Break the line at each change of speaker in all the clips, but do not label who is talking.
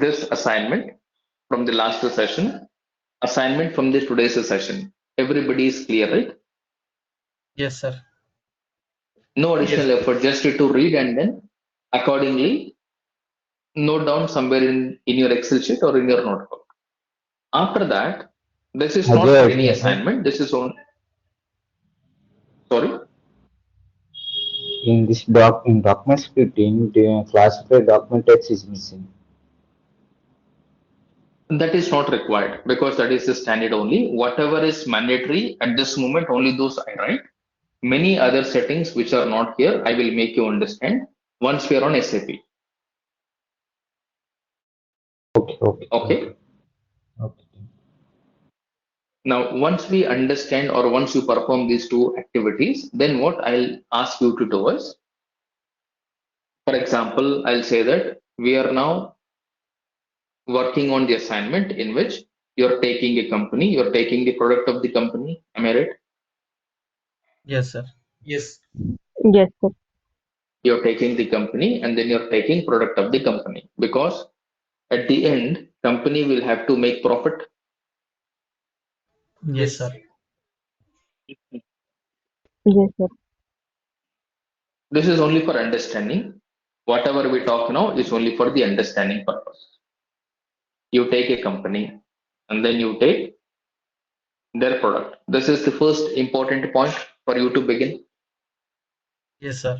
this assignment from the last session, assignment from the today's session. Everybody is clear, right?
Yes, sir.
No additional effort, just to read and then accordingly note down somewhere in, in your Excel sheet or in your notebook. After that, this is not
Ajay.
any assignment, this is on. Sorry?
In this doc, in document splitting, the classified document text is missing.
That is not required because that is the standard only. Whatever is mandatory at this moment, only those I write. Many other settings which are not here, I will make you understand once we are on SAP.
Okay, okay.
Okay.
Okay.
Now, once we understand or once you perform these two activities, then what I'll ask you to do is, for example, I'll say that we are now working on the assignment in which you're taking a company, you're taking the product of the company. Am I right?
Yes, sir. Yes.
Yes, sir.
you're taking the company and then you're taking product of the company because at the end company will have to make profit
Yes, sir.
Yes, sir.
this is only for understanding whatever we talk now is only for the understanding purpose you take a company and then you take their product this is the first important point for you to begin
Yes, sir.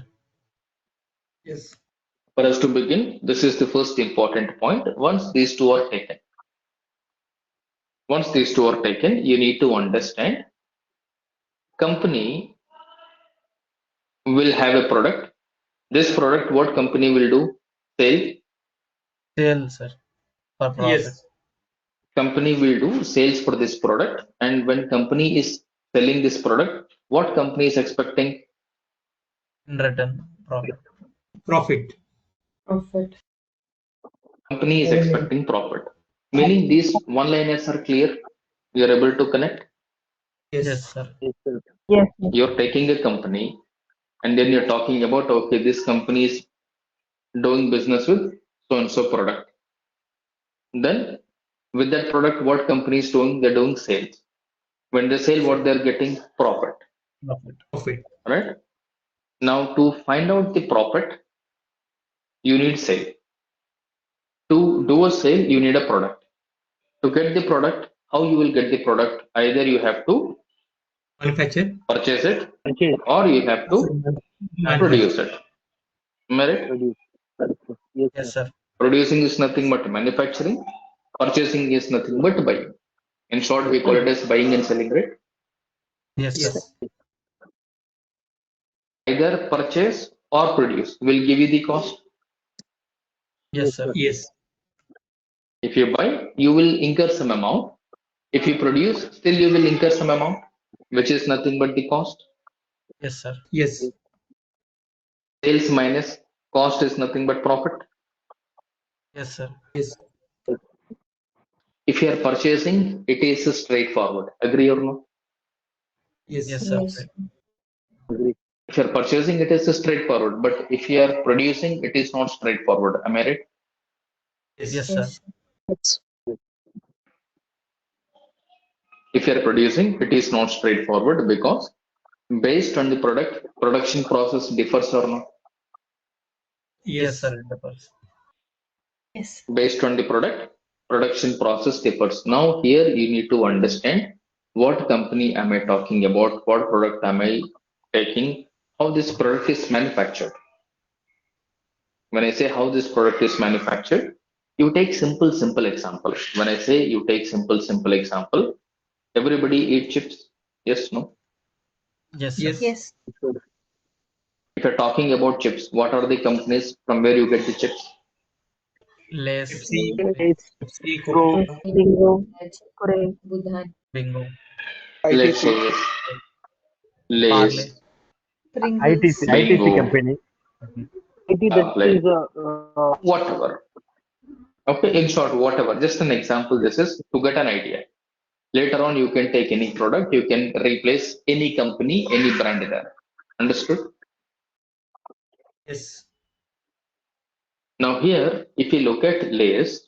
Yes.
for us to begin this is the first important point once these two are taken once these two are taken you need to understand company will have a product this product what company will do sell
Sale, sir. For profit.
Yes.
company will do sales for this product and when company is selling this product what company is expecting
In return, profit.
Profit.
Profit.
company is expecting profit meaning these one liners are clear you are able to connect
Yes, sir.
Yes, sir.
you're taking a company and then you're talking about okay this company is doing business with so and so product then with that product what company is doing they're doing sales when they sell what they're getting profit
Profit.
Profit.
right now to find out the profit you need sale to do a sale you need a product to get the product how you will get the product either you have to
Manufacture.
purchase it or you have to produce it. Am I right?
Yes, sir.
Producing is nothing but manufacturing. Purchasing is nothing but buying. In short, we call it as buying and selling, right?
Yes, sir.
Yes.
Either purchase or produce will give you the cost.
Yes, sir.
Yes.
If you buy, you will incur some amount. If you produce, still you will incur some amount, which is nothing but the cost.
Yes, sir.
Yes.
Sales minus cost is nothing but profit.
Yes, sir.
Yes.
If you are purchasing, it is straightforward. Agree or no?
Yes.
Yes, sir.
Yes.
If you are purchasing, it is straightforward. But if you are producing, it is not straightforward. Am I right?
Yes, sir.
if you're producing it is not straightforward because based on the product production process differs or not
Yes, sir. It differs.
Yes.
based on the product production process differs now here you need to understand what company am i talking about what product am i taking how this product is manufactured when i say how this product is manufactured you take simple simple example when i say you take simple simple example everybody eat chips yes no
Yes,
Yes.
sir.
Yes.
if you're talking about chips, what are the companies from where you get the chips?
Less.
Pepsi. Pepsi.
Coke.
Coke.
Bingo. Correct.
Budhan.
Bingo.
Let's say yes.
Parle.
Lays,
Pringles.
Bingo.
IT
Ah,
that
like-
is uh, uh,
whatever. Okay, in short, whatever. Just an example. This is to get an idea. Later on, you can take any product, you can replace any company, any brand there. Understood?
Yes.
Now here, if you look at Lay's,